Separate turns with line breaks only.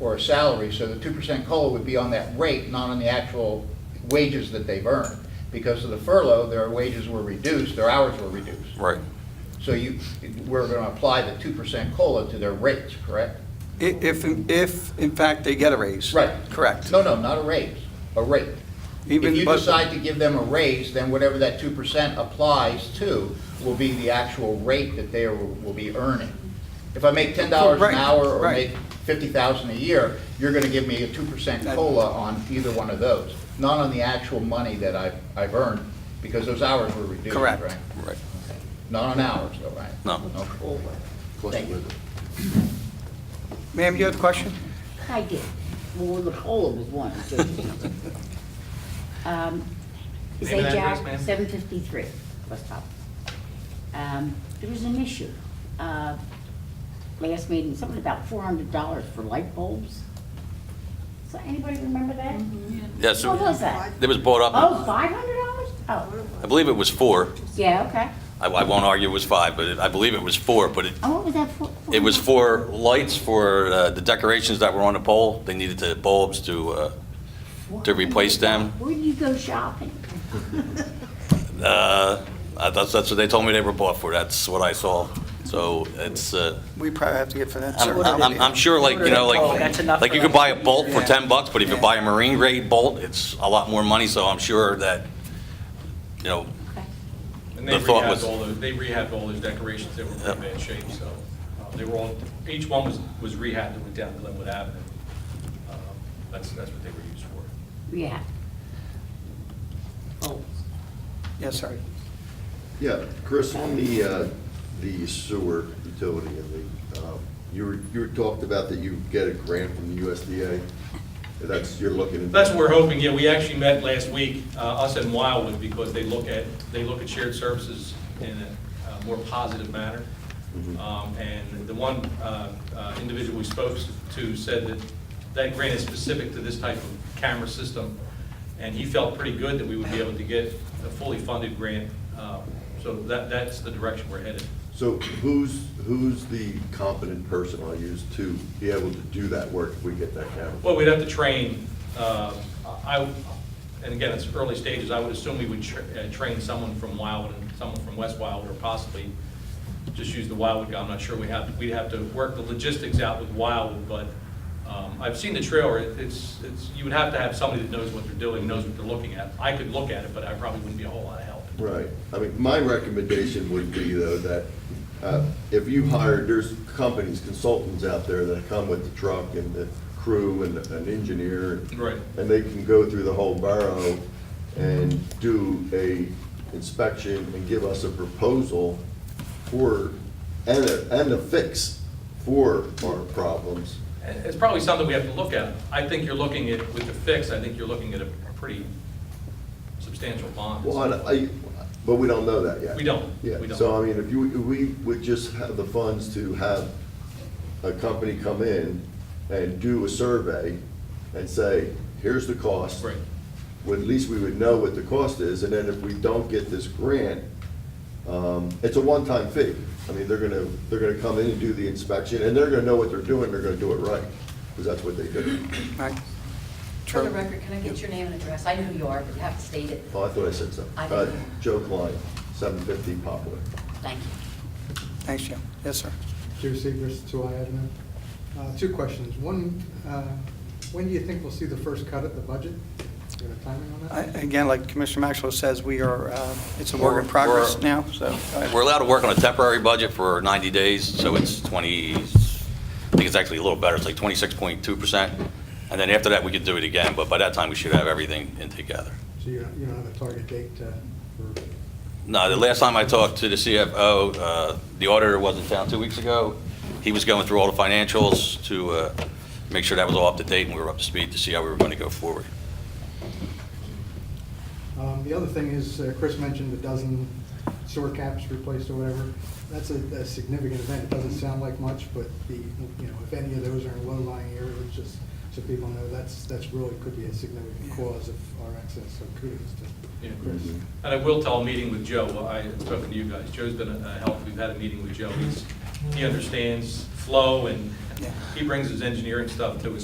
or a salary, so the two percent COLA would be on that rate, not on the actual wages that they've earned. Because of the furlough, their wages were reduced, their hours were reduced.
Right.
So you, we're gonna apply the two percent COLA to their rates, correct?
I- If, if in fact they get a raise.
Right.
Correct.
No, no, not a raise, a rate. If
Even
you
but-
decide to give them a raise, then whatever that two percent applies to will be the actual rate that they will will be earning. If I make ten dollars an
Right,
hour or
right.
make fifty thousand a year, you're gonna give me a two percent
That-
COLA on either one of those, not on the actual money that I've, I've earned, because those hours were reduced, right?
Correct. Right.
Not on hours, though, right?
No.
No COLA. Thank you.
Ma'am, you had a question?
I did. Well, the cola was one. so- Um, Is
Name and address,
HR
ma'am?
seven fifty-three, West Hop. Um, There was an issue. uh, Last meeting, something about four hundred dollars for light bulbs. So anybody remember that?
Yes.
What was that?
It was brought
Oh,
up,
five hundred dollars? Oh,
I believe it was four.
yeah, okay.
I, I won't argue it was five, but it- I believe it was four, but it,
And what was that for?
it was for lights for uh, the decorations that were on the pole. They needed the bulbs to, uh, to replace them.
Where do you go shopping?
uh, that's, that's what they told me they were bought for. That's what I saw. So it's, uh,
We probably have to get for that.
I'm, I'm, I'm sure like, you know,
Oh, that's enough
like, like
for
you could
them.
buy a bolt for
Yeah.
10 bucks, but if you buy a marine grade bolt, it's a lot more money, so I'm sure that, you know,
Okay.
And they
The thought was-
rehabbed all those, they rehabbed all those decorations that were in pretty bad shape, so uh, they were all, each one was, was rehabbed and went down Glenwood Avenue. Um, That's, that's what they were used for.
Yeah. Bulbs.
Yes, sir.
Yeah, Chris, on the, uh, the sewer utility and the, uh, you were, you were talked about that you get a grant from the USDA. That's, you're looking. into-
That's what we're hoping, yeah, we actually met last week, uh, us and Wildwood, because they look at, they look at shared services in a uh, more positive manner.
Mhm.
Um, And the one uh, uh, individual we spoke to said that that grant is specific to this type of camera system, and he felt pretty good that we would be able to get a fully funded grant. Uh, So that, that's the direction we're headed.
So who's, who's the competent person I'll use to be able to do that work if we get that camera?
Well, we'd have to train, uh, I, and again, it's early stages, I would assume we would tr- uh, train someone from Wildwood and someone from West Wildwood, or possibly just use the Wildwood guy, I'm not sure, we have, we'd have to work the logistics out with Wildwood, but um, I've seen the trailer, It- it's, it's, you would have to have somebody that knows what they're doing, knows what they're looking at. I could look at it, but I probably wouldn't be a whole lot of help.
Right. I mean, my recommendation would be though that uh, if you hire, there's companies, consultants out there that come with the truck and the crew and an engineer.
Right.
And they can go through the whole borough and do a inspection and give us a proposal for, and a, and a fix for our problems.
And It's probably something we have to look at. I think you're looking at, with the fix, I think you're looking at a pretty substantial bond.
Well, I- I, but we don't know that yet.
We don't.
Yeah,
We don't.
so I mean, if you, if we would just have the funds to have a company come in and do a survey and say, here's the cost.
Right.
Well, at least we would know what the cost is, and then if we don't get this grant, um, it's a one-time fee. I mean, they're gonna, they're gonna come in and do the inspection, and they're gonna know what they're doing, they're gonna do it right, because that's what they do.
Right.
For the
True.
record, can I get your name and address? I know who you are, but you have to state it.
Oh, I thought I said so.
I
Uh,
didn't.
Joe Klein, seven fifty Poplar.
Thank you.
Thanks, Jim. Yes, sir.
Jerry Segrist, Two I Avenue. Uh, Two questions. One, uh, when do you think we'll see the first cut at the budget? Do you have a timing on
I-
that?
Again, like Commissioner Maxwell says, we are, uh, it's a work in progress
We're-
now, so.
We're allowed to work on a temporary budget for 90 days, so it's 20, I think it's actually a little better, it's like 26.2%. And then after that, we could do it again, but by that time, we should have everything in together.
So you don't you don't have a target date uh, for,
No, the last time I talked to the CFO, uh, the auditor was in town two weeks ago. He was going through all the financials to uh, make sure that was all up to date and we were up to speed to see how we were going to go forward.
Um, the other thing is, uh, Chris mentioned a dozen sewer caps replaced or whatever. That's a a significant event. It doesn't sound like much, but the, you know, if any of those are in low-lying areas, just so people know, that's, that's really could be a significant cause of our excess, so kudos
Yeah.
to Chris.
And I will tell a meeting with Joe, Well, I had spoken to you guys, Joe's been a a help, we've had a meeting with Joe, he's, he understands flow and
Yeah.
he brings his engineering stuff to us,